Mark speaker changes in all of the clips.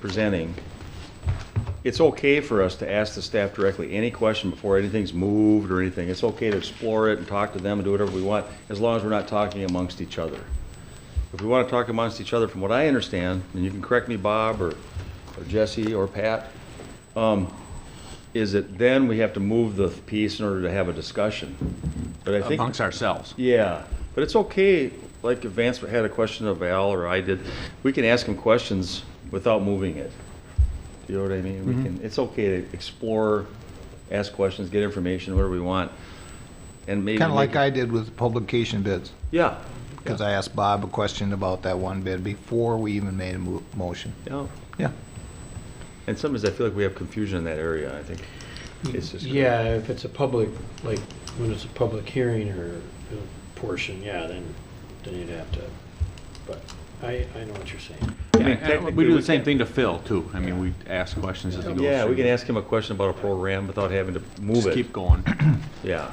Speaker 1: presenting, it's okay for us to ask the staff directly any question before anything's moved or anything. It's okay to explore it and talk to them and do whatever we want, as long as we're not talking amongst each other. If we want to talk amongst each other, from what I understand, and you can correct me, Bob, or or Jesse, or Pat, um, is that then we have to move the piece in order to have a discussion. But I think.
Speaker 2: amongst ourselves.
Speaker 1: Yeah, but it's okay, like if Vance had a question of Al or I did, we can ask him questions without moving it. Do you know what I mean? We can, it's okay to explore, ask questions, get information, whatever we want, and maybe.
Speaker 3: Kind of like
Speaker 1: make it-
Speaker 3: I did with publication bids,
Speaker 1: Yeah,
Speaker 3: because I asked Bob a question about that one bid before we even made a mo- motion.
Speaker 1: yeah,
Speaker 3: Yeah.
Speaker 1: and sometimes I feel like we have confusion in that area, I think. It's just-
Speaker 4: Yeah, if it's a public, like, when it's a public hearing or you know, portion, yeah, then, then you'd have to, but I, I know what you're saying.
Speaker 1: I mean,
Speaker 2: Yeah, and
Speaker 1: technically
Speaker 2: We do
Speaker 1: we
Speaker 2: the same
Speaker 1: can-
Speaker 2: thing to Phil, too. I mean, we ask questions as he goes through.
Speaker 1: Yeah, we can ask him a question about a program without having to move
Speaker 2: Just
Speaker 1: it,
Speaker 2: keep going.
Speaker 1: yeah.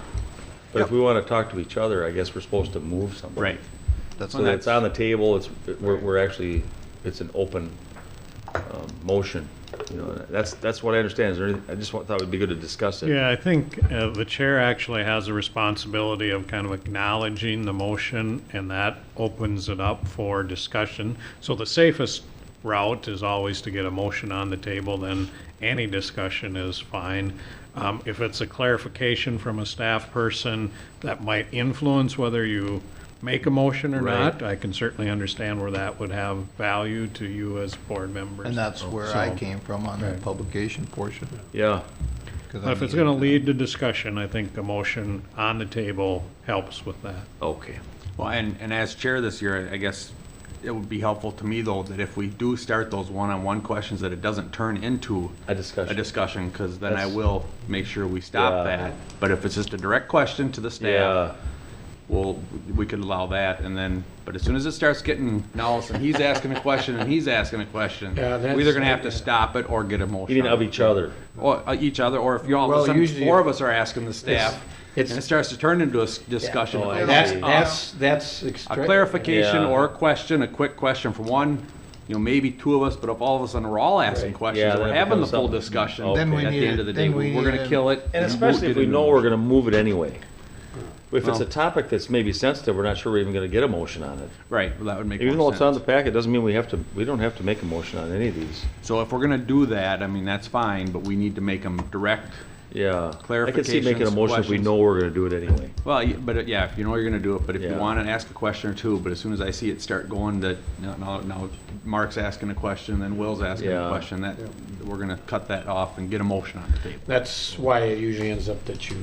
Speaker 1: But if we want to talk to each other, I guess we're supposed to move something.
Speaker 2: Right.
Speaker 3: That's
Speaker 1: So
Speaker 3: what I-
Speaker 1: it's on the table, it's, we're, we're actually, it's an open, um, motion, you know, that's, that's what I understand, is there, any- I just wa- thought it'd be good to discuss it.
Speaker 5: Yeah, I think uh, the chair actually has a responsibility of kind of acknowledging the motion, and that opens it up for discussion. So the safest route is always to get a motion on the table, then any discussion is fine. Um, If it's a clarification from a staff person that might influence whether you make a motion or
Speaker 1: Right.
Speaker 5: not, I can certainly understand where that would have value to you as board members.
Speaker 3: And that's where I
Speaker 5: So-
Speaker 3: came from on the publication portion.
Speaker 1: Yeah,
Speaker 3: 'cause I
Speaker 5: If it's
Speaker 3: needed-
Speaker 5: gonna lead to discussion, I think a motion on the table helps with that.
Speaker 1: okay,
Speaker 2: Well, and, and as chair this year, I guess it would be helpful to me, though, that if we do start those one-on-one questions, that it doesn't turn into
Speaker 1: a discussion.
Speaker 2: a discussion, because then I
Speaker 1: That's-
Speaker 2: will make sure we stop
Speaker 1: Yeah.
Speaker 2: that. But if it's just a direct question to the
Speaker 1: Yeah,
Speaker 2: staff, well, we could allow that, and then, but as soon as it starts getting, now, all of a sudden he's asking a question and he's asking a question,
Speaker 4: Yeah,
Speaker 2: we're either
Speaker 4: that's-
Speaker 2: gonna have to stop it or get a motion.
Speaker 1: eating
Speaker 2: on
Speaker 1: of
Speaker 2: it.
Speaker 1: each other,
Speaker 2: Or uh, each other, or if you all,
Speaker 4: Well,
Speaker 2: of a sudden,
Speaker 4: usually-
Speaker 2: four of us are asking the staff, and
Speaker 4: it's-
Speaker 2: it starts to turn into a s- discussion.
Speaker 1: Oh, I
Speaker 2: of
Speaker 4: That's,
Speaker 1: see.
Speaker 4: that's, that's. ex-
Speaker 2: A clarification
Speaker 1: Yeah.
Speaker 2: or a question, a quick question from one, you know, maybe two of us, but if all of a sudden we're all asking
Speaker 4: Right.
Speaker 2: questions,
Speaker 1: Yeah,
Speaker 2: we're
Speaker 1: then it
Speaker 2: having the
Speaker 1: becomes
Speaker 2: full
Speaker 1: something.
Speaker 2: discussion.
Speaker 1: Okay. Then
Speaker 3: we
Speaker 2: At the
Speaker 3: need
Speaker 2: end of the
Speaker 3: it-
Speaker 2: day,
Speaker 3: then we
Speaker 2: we're
Speaker 3: need
Speaker 2: gonna
Speaker 3: it-
Speaker 2: kill it.
Speaker 1: and
Speaker 2: we'll
Speaker 1: especially if
Speaker 2: get
Speaker 1: we
Speaker 2: it in
Speaker 1: know
Speaker 2: motion.
Speaker 1: we're gonna move it anyway. If it's a
Speaker 2: Well-
Speaker 1: topic that's maybe sensitive, we're not sure we're even gonna get a motion on it.
Speaker 2: Right, well, that would make
Speaker 1: Even though
Speaker 2: more
Speaker 1: it's on
Speaker 2: sense.
Speaker 1: the packet, doesn't mean we have to, we don't have to make a motion on any of these,
Speaker 2: So if we're gonna do that, I mean, that's fine, but we need to make them direct.
Speaker 1: yeah. I can see making a motion
Speaker 2: Clarifications,
Speaker 1: if we
Speaker 2: questions.
Speaker 1: know we're gonna do it anyway.
Speaker 2: Well, y- but uh, yeah, if you know you're gonna do it, but if you
Speaker 1: Yeah.
Speaker 2: wanna ask a question or two, but as soon as I see it start going that, now, now, now Mark's asking a question, then Will's asking
Speaker 1: Yeah.
Speaker 2: a question, that, we're gonna cut that off and get a motion on the table.
Speaker 4: That's why it usually ends up that you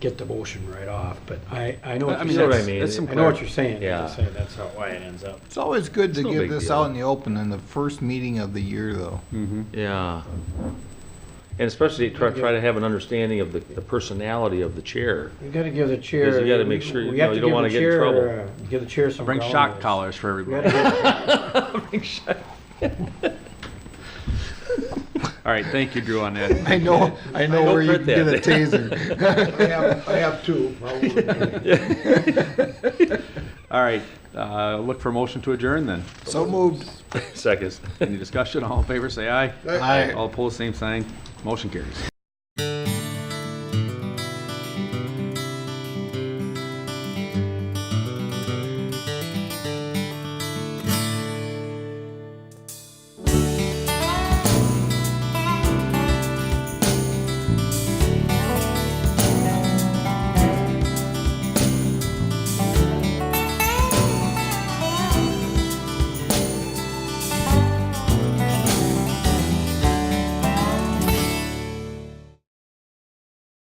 Speaker 4: get the motion right off, but I, I know
Speaker 2: But, I
Speaker 4: what
Speaker 2: mean,
Speaker 4: you're
Speaker 1: what I
Speaker 2: that's,
Speaker 4: saying.
Speaker 1: mean.
Speaker 2: that's some.
Speaker 4: I know what
Speaker 2: clar-
Speaker 4: you're saying,
Speaker 1: Yeah.
Speaker 4: I'm saying that's how, why it ends up.
Speaker 3: It's always good to
Speaker 1: no big
Speaker 3: give this
Speaker 1: deal.
Speaker 3: out in the open in the first meeting of the year, though.
Speaker 1: Yeah. And especially try, try to have an understanding of the, the personality of the chair.
Speaker 4: You gotta give the chair.
Speaker 1: Because you gotta make sure, you
Speaker 4: we
Speaker 1: know,
Speaker 4: have
Speaker 1: you
Speaker 4: to
Speaker 1: don't
Speaker 4: give
Speaker 1: wanna
Speaker 4: the
Speaker 1: get in
Speaker 4: chair,
Speaker 1: trouble.
Speaker 4: uh, Give the chair some.
Speaker 2: Bring shock
Speaker 4: groundworks.
Speaker 2: collars for
Speaker 4: We
Speaker 2: everybody.
Speaker 4: gotta give-
Speaker 2: All right, thank you, Drew, on that.
Speaker 3: I know, I know
Speaker 1: don't
Speaker 3: where you
Speaker 1: print
Speaker 3: can get a
Speaker 1: that.
Speaker 3: taser.
Speaker 4: I have, I have two.
Speaker 2: All right, uh, look for a motion to adjourn then.
Speaker 3: So moved.
Speaker 1: Seconds.
Speaker 2: Any discussion? All in favor, say aye.
Speaker 3: Aye.
Speaker 2: All opposed, same sign. Motion carries.